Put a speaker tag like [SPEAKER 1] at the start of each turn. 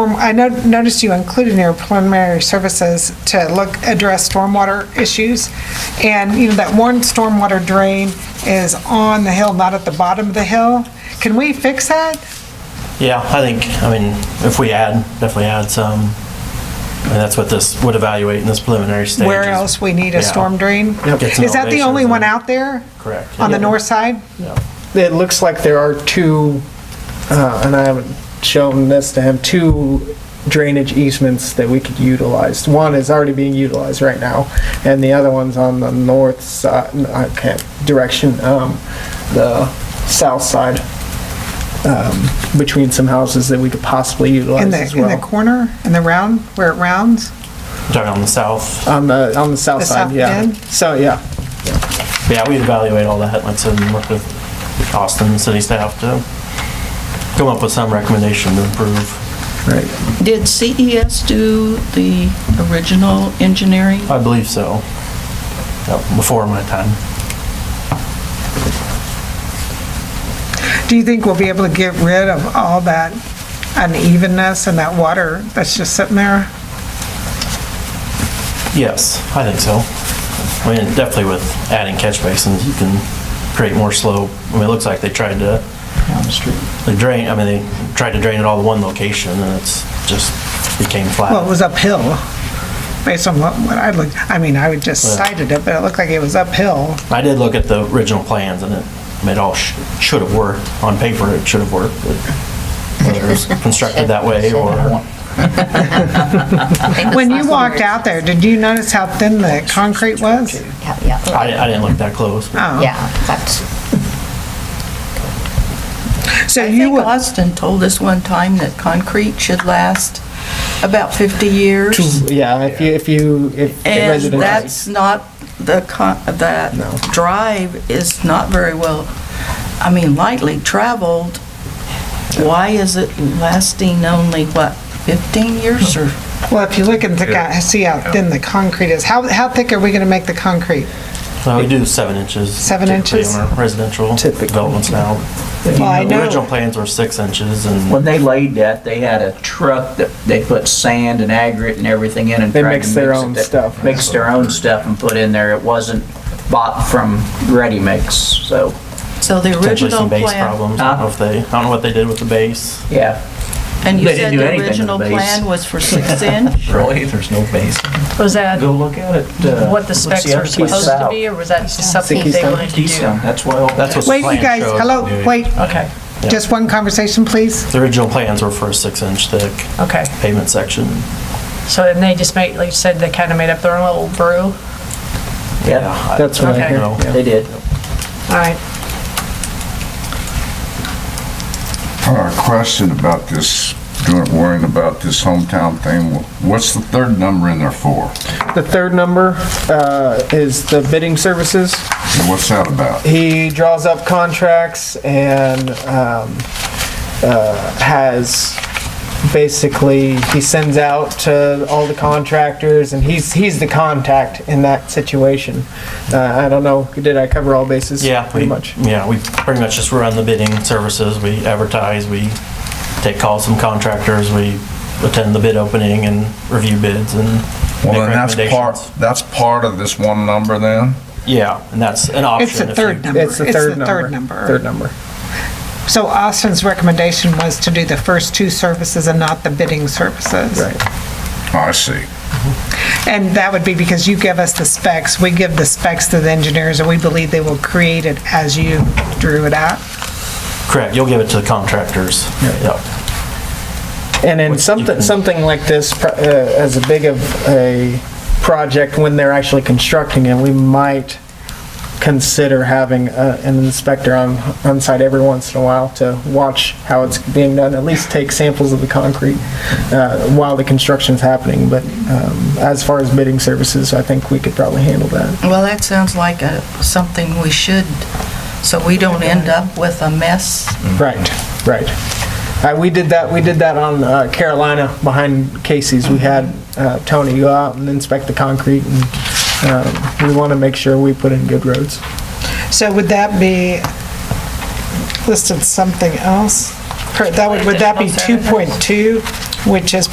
[SPEAKER 1] Um, I no- noticed you included in your preliminary services to look, address stormwater issues. And, you know, that one stormwater drain is on the hill, not at the bottom of the hill. Can we fix that?
[SPEAKER 2] Yeah, I think, I mean, if we add, definitely add some, and that's what this would evaluate in this preliminary stage.
[SPEAKER 1] Where
[SPEAKER 2] is-
[SPEAKER 1] else we need a
[SPEAKER 2] Yeah.
[SPEAKER 1] storm drain?
[SPEAKER 2] Yep. Get some
[SPEAKER 1] Is that the only
[SPEAKER 2] elevations
[SPEAKER 1] one
[SPEAKER 2] and-
[SPEAKER 1] out there?
[SPEAKER 2] Correct.
[SPEAKER 1] On the
[SPEAKER 2] Yeah.
[SPEAKER 1] north side?
[SPEAKER 2] Yeah.
[SPEAKER 3] It looks like there are two, uh, and I haven't shown this to him, two drainage easements that we could utilize. One is already being utilized right now, and the other one's on the north side, I can't, direction, um, the south side, um, between some houses that we could possibly
[SPEAKER 1] In
[SPEAKER 3] utilize
[SPEAKER 1] the,
[SPEAKER 3] as
[SPEAKER 1] in the
[SPEAKER 3] well.
[SPEAKER 1] corner, in the round, where it rounds?
[SPEAKER 2] Talking on the south.
[SPEAKER 3] On the, on the south
[SPEAKER 1] The
[SPEAKER 3] side,
[SPEAKER 1] south
[SPEAKER 3] yeah.
[SPEAKER 1] end?
[SPEAKER 3] So, yeah,
[SPEAKER 2] Yeah, we evaluate all that, like I said, and work with Austin and city staff to come up with some recommendation to improve.
[SPEAKER 3] right.
[SPEAKER 4] Did CES do the original engineering?
[SPEAKER 2] I believe so. Yep, Before my time.
[SPEAKER 1] Do you think we'll be able to get rid of all that unevenness and that water that's just sitting there?
[SPEAKER 2] Yes, I think so. I mean, definitely with adding catch basins, you can create more slope. I mean, it looks like they tried to. Down the street. They drain, I mean, they tried to drain it all to one location and it's just became
[SPEAKER 1] Well, it
[SPEAKER 2] flat.
[SPEAKER 1] was uphill, based on what what I looked, I mean, I would just
[SPEAKER 2] Right.
[SPEAKER 1] cited it, but it looked like it was uphill.
[SPEAKER 2] I did look at the original plans and it, I mean, it all sh- should have worked. On paper, it should have worked, but whether it was constructed that way or,
[SPEAKER 1] When you walked out there, did you notice how thin the concrete was?
[SPEAKER 5] Yeah, yeah,
[SPEAKER 2] I, I didn't look that close. but
[SPEAKER 1] Oh,
[SPEAKER 5] yeah, that's,
[SPEAKER 1] So
[SPEAKER 4] I
[SPEAKER 1] you
[SPEAKER 4] think
[SPEAKER 1] would,
[SPEAKER 4] Austin told us one time that concrete should last about 50 years.
[SPEAKER 3] Yeah, if you, if you, if
[SPEAKER 4] And
[SPEAKER 3] residents.
[SPEAKER 4] that's not, the, con- that
[SPEAKER 3] No.
[SPEAKER 4] drive is not very well, I mean, lightly traveled. Why is it lasting only, what, 15 years or?
[SPEAKER 1] well, if you look and think out- see how thin the concrete is, how, how thick are we going to make the concrete?
[SPEAKER 2] Uh, we do seven inches.
[SPEAKER 1] Seven
[SPEAKER 2] typically
[SPEAKER 1] inches?
[SPEAKER 2] on our Residential
[SPEAKER 3] Typically.
[SPEAKER 2] developments now.
[SPEAKER 1] Well, I
[SPEAKER 2] The Original
[SPEAKER 1] know,
[SPEAKER 2] plans were six inches and.
[SPEAKER 6] When they laid that, they had a truck that they put sand and aggregate and everything in and
[SPEAKER 3] They
[SPEAKER 6] tried to
[SPEAKER 3] mix their
[SPEAKER 6] mix it.
[SPEAKER 3] own
[SPEAKER 6] They
[SPEAKER 3] stuff.
[SPEAKER 6] Mixed their own stuff and put in there. It wasn't bought from ready mix, so,
[SPEAKER 4] So the
[SPEAKER 2] potentially
[SPEAKER 4] original
[SPEAKER 2] some base
[SPEAKER 4] plan,
[SPEAKER 2] problems. I don't know if they, I don't know what they did with the base.
[SPEAKER 6] yeah.
[SPEAKER 4] and you
[SPEAKER 6] They didn't
[SPEAKER 4] said
[SPEAKER 6] do
[SPEAKER 4] the
[SPEAKER 6] anything to the
[SPEAKER 4] original
[SPEAKER 6] base.
[SPEAKER 4] plan was for six inch?
[SPEAKER 6] Really? There's no base.
[SPEAKER 7] Was that
[SPEAKER 6] Go look at it. uh,
[SPEAKER 7] what the
[SPEAKER 6] what's
[SPEAKER 7] specs
[SPEAKER 6] other
[SPEAKER 7] were
[SPEAKER 6] piece?
[SPEAKER 7] supposed to
[SPEAKER 6] South.
[SPEAKER 7] be, or was that just something they
[SPEAKER 3] Keystone.
[SPEAKER 7] wanted to do?
[SPEAKER 6] Keystone, that's why all
[SPEAKER 2] That's what the
[SPEAKER 1] wait, you
[SPEAKER 2] plan
[SPEAKER 1] guys,
[SPEAKER 2] showed.
[SPEAKER 1] hello, wait,
[SPEAKER 7] Okay,
[SPEAKER 1] just one conversation, please.
[SPEAKER 2] The original plans were for a six-inch thick
[SPEAKER 7] okay.
[SPEAKER 2] pavement section.
[SPEAKER 7] So then they just made, like you said, they kind of made up their own little brew.
[SPEAKER 6] Yeah,
[SPEAKER 2] I-
[SPEAKER 3] That's what I
[SPEAKER 7] Okay.
[SPEAKER 3] hear.
[SPEAKER 2] No.
[SPEAKER 3] yeah.
[SPEAKER 6] they did.
[SPEAKER 7] All right.
[SPEAKER 8] Uh, Question about this, doing- worrying about this hometown thing. What's the third number in there for?
[SPEAKER 3] The third number uh, is the bidding services.
[SPEAKER 8] And what's that about?
[SPEAKER 3] He draws up contracts and um, uh, has basically he sends out to all the contractors, and he's he's the contact in that situation. Uh, I don't know. Did I cover all bases?
[SPEAKER 2] Yeah, we,
[SPEAKER 3] pretty much.
[SPEAKER 2] yeah, we pretty much just run the bidding services. We advertise, we take calls from contractors, we attend the bid opening and review bids and make
[SPEAKER 8] Well, then that's part,
[SPEAKER 2] recommendations.
[SPEAKER 8] that's part of this one number then?
[SPEAKER 2] Yeah, and that's an option.
[SPEAKER 1] It's the
[SPEAKER 2] if you-
[SPEAKER 1] third number.
[SPEAKER 3] It's the third number.
[SPEAKER 1] Third number.
[SPEAKER 3] Third number.
[SPEAKER 1] So Austin's recommendation was to do the first two services and not the bidding services.
[SPEAKER 3] Right.
[SPEAKER 8] I see.
[SPEAKER 1] And that would be because you give us the specs, we give the specs to the engineers, and we believe they will create it as you drew it out.
[SPEAKER 2] Correct, you'll give it to the contractors. Yep.
[SPEAKER 3] And in
[SPEAKER 2] Which you
[SPEAKER 3] something,
[SPEAKER 2] can-
[SPEAKER 3] something like this, pro- uh, as a big of a project, when they're actually constructing it, we might consider having a- an inspector on, on site every once in a while to watch how it's being done, at least take samples of the concrete uh, while the construction's happening. But um, as far as bidding services, I think we could probably handle that.
[SPEAKER 4] Well, that sounds like a, something we should, so we don't end up with a mess.
[SPEAKER 3] Right, right. Uh, We did that, we did that on uh, Carolina behind Casey's. We had uh, Tony go out and inspect the concrete and um, we want to make sure we put in good roads.
[SPEAKER 1] So would that be listed something else? Or That would, would that be
[SPEAKER 7] Additional services?
[SPEAKER 1] 2.2? which is